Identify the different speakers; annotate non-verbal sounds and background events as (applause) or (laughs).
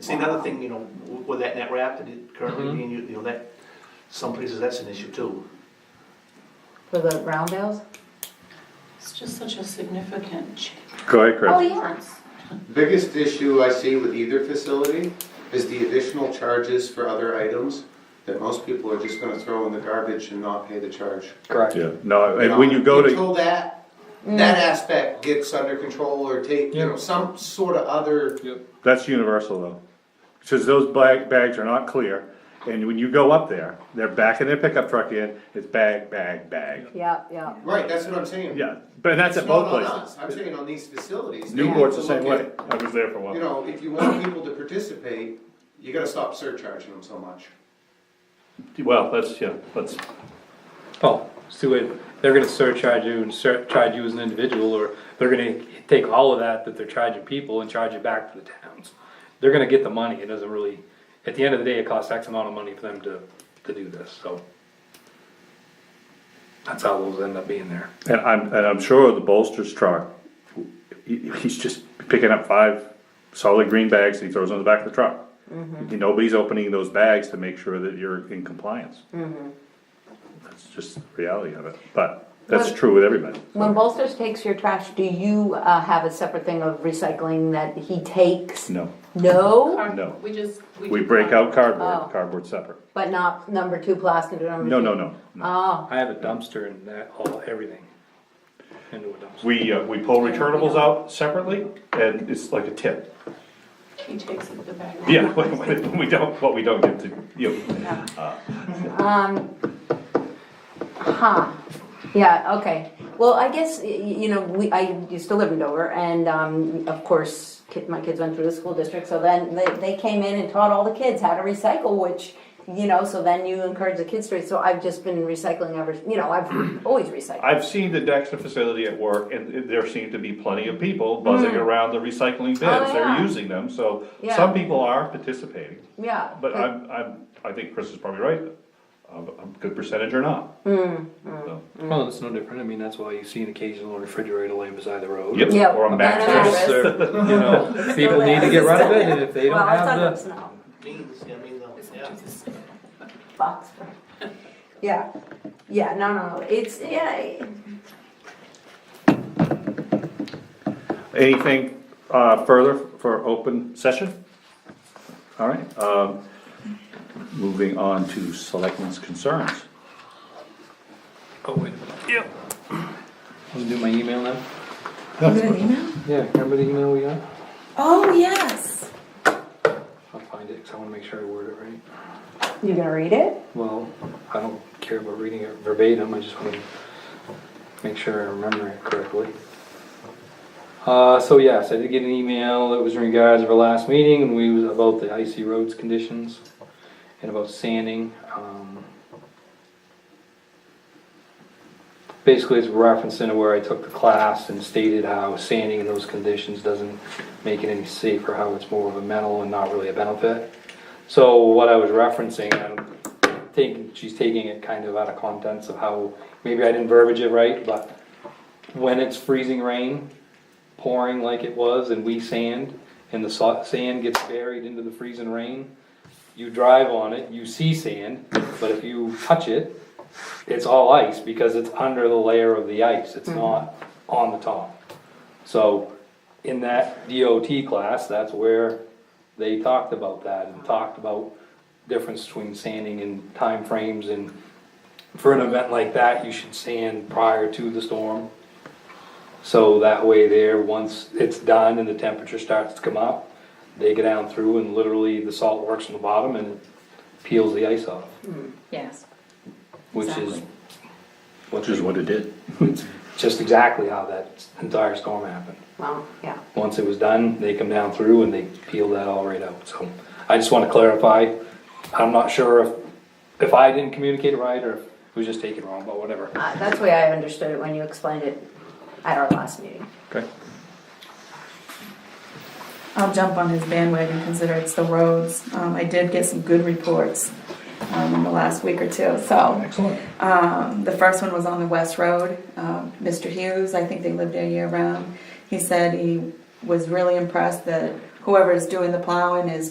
Speaker 1: See, another thing, you know, w- with that net wrap that it currently
Speaker 2: Mhm.
Speaker 1: being, u- you know, that, some places that's an issue too.
Speaker 3: For the round bales?
Speaker 4: It's just such a significant change.
Speaker 5: Go ahead,
Speaker 3: Oh,
Speaker 5: Chris.
Speaker 3: yeah.
Speaker 6: Biggest issue I see with either facility is the additional charges for other items that most people are just gonna throw in the garbage and not pay the charge.
Speaker 2: Correct.
Speaker 5: Yeah, no, and when you go to,
Speaker 6: Until that, that aspect gets under control or take, you know,
Speaker 2: Yeah.
Speaker 6: some sort of other,
Speaker 5: that's universal though. Cause those bag, bags are not clear, and when you go up there, they're backing their pickup truck in, it's bag, bag, bag.
Speaker 3: Yeah, yeah.
Speaker 6: right, that's what I'm saying.
Speaker 5: Yeah, but that's at
Speaker 6: It's not
Speaker 5: both
Speaker 6: on us.
Speaker 5: places.
Speaker 6: I'm saying on these facilities. they need
Speaker 5: Newport's
Speaker 6: to
Speaker 5: the same
Speaker 6: look
Speaker 5: way,
Speaker 6: at,
Speaker 5: I was there for a
Speaker 6: You
Speaker 5: while.
Speaker 6: know, if you want people to participate, you gotta stop surcharging them so much.
Speaker 5: Well, that's, yeah, that's,
Speaker 2: Well, it's two ways. They're gonna surcharge you and surcharge you as an individual, or they're gonna take all of that that they're charging people and charge it back to the towns. They're gonna get the money. It doesn't really, at the end of the day, it costs X amount of money for them to, to do this, so. That's how those end up being there.
Speaker 5: and I'm, and I'm sure the bolster's truck, he- he's just picking up five solid green bags that he throws on the back of the truck.
Speaker 3: Mm-hmm.
Speaker 5: Nobody's opening those bags to make sure that you're in compliance.
Speaker 3: Mm-hmm.
Speaker 5: That's just the reality of it, but that's
Speaker 3: But-
Speaker 5: true with everybody.
Speaker 3: When Bolsters takes your trash, do you uh, have a separate thing of recycling that he takes?
Speaker 5: No,
Speaker 3: No,
Speaker 4: Car-
Speaker 5: No.
Speaker 4: We just.
Speaker 5: we
Speaker 4: just-
Speaker 5: break out
Speaker 3: Oh.
Speaker 5: cardboard, cardboard separate.
Speaker 3: but not number two plastic or number
Speaker 5: No,
Speaker 3: two?
Speaker 5: no, no, no.
Speaker 3: Oh,
Speaker 2: I have a dumpster and that, all, everything into a dumpster.
Speaker 5: We, uh, we pull returnables out separately and it's like a tip.
Speaker 4: He takes it the bag.
Speaker 5: Yeah, (laughs)
Speaker 4: (laughs)
Speaker 5: when we don't, what we don't get to, you know.
Speaker 4: Yeah.
Speaker 3: um, huh, yeah, okay. Well, I guess, y- y- you know, we, I used to live in Dover and, um, of course, kid, my kids went through the school district, so then they, they came in and taught all the kids how to recycle, which, you know, so then you encourage the kids to, so I've just been recycling ever, you know, I've always recycled.
Speaker 5: I've seen the Dexter facility at work, and it- there seem to be plenty of people buzzing around the recycling bins, they're
Speaker 3: Hmm. Oh, yeah.
Speaker 5: using them, so
Speaker 3: Yeah.
Speaker 5: some people are participating.
Speaker 3: Yeah.
Speaker 5: But I'm, I'm, I think Chris is probably right, a, a good percentage or not.
Speaker 3: Hmm,
Speaker 5: So,
Speaker 2: Well, it's no different. I mean, that's why you see an occasional refrigerator laying beside the road.
Speaker 5: Yep,
Speaker 3: Yep.
Speaker 5: or a
Speaker 3: Matter of
Speaker 5: mattress,
Speaker 3: fact.
Speaker 2: (laughs) Dumpster, you know, people need to get rid of it, and if they
Speaker 3: Well,
Speaker 2: don't
Speaker 3: I thought it
Speaker 2: have
Speaker 3: was
Speaker 2: the,
Speaker 3: no
Speaker 1: Means, I mean, though, yeah.
Speaker 3: box. (laughs) for- Yeah, yeah, no, no, no, it's, yeah,
Speaker 5: anything, uh, further for open session? Alright, um, moving on to selectmen's concerns.
Speaker 2: oh, wait. Yep. Want to do my email now? Yeah, remember the email we got?
Speaker 4: Oh, yes.
Speaker 2: I'll find it, because I want to make sure I word it right.
Speaker 3: you gonna read it?
Speaker 2: Well, I don't care about reading it verbatim, I just want to make sure I remember it correctly. Uh, so yes, I did get an email, that was in regards of our last meeting, and we was about the icy roads conditions and about sanding, um. Basically, it's referencing where I took the class and stated how sanding in those conditions doesn't make it any safer, how it's more of a mental and not really a benefit. So what I was referencing, I'm taking, she's taking it kind of out of contents of how, maybe I didn't verbiage it right, but when it's freezing rain, pouring like it was, and we sand, and the sa- sand gets buried into the freezing rain, you drive on it, you see sand, but if you touch it, it's all ice, because it's under the layer of the ice, it's not on the top. So, in that DOT class, that's where they talked about that, and talked about difference between sanding and time frames and for an event like that, you should sand prior to the storm. So that way there, once it's done and the temperature starts to come up, they go down through and literally the salt works on the bottom and it peels the ice off,
Speaker 3: Yes.
Speaker 2: which is.
Speaker 3: Exactly.
Speaker 2: Which
Speaker 5: it did.
Speaker 2: (laughs) Just exactly how that entire storm happened.
Speaker 3: Well, yeah,
Speaker 2: Once it was done, they come down through and they peel that all right out, so I just wanna clarify. I'm not sure if, if I didn't communicate it right or if it was just taken wrong, but whatever.
Speaker 3: uh, that's the way I understood it when you explained it at our last meeting.
Speaker 5: Okay.
Speaker 7: I'll jump on his bandwagon, consider it's the roads. Um, I did get some good reports, um, in the last week or two, so.
Speaker 5: Excellent.
Speaker 7: Um, the first one was on the West Road, um, Mr. Hughes, I think they lived there year round. He said he was really impressed that whoever is doing the plowing is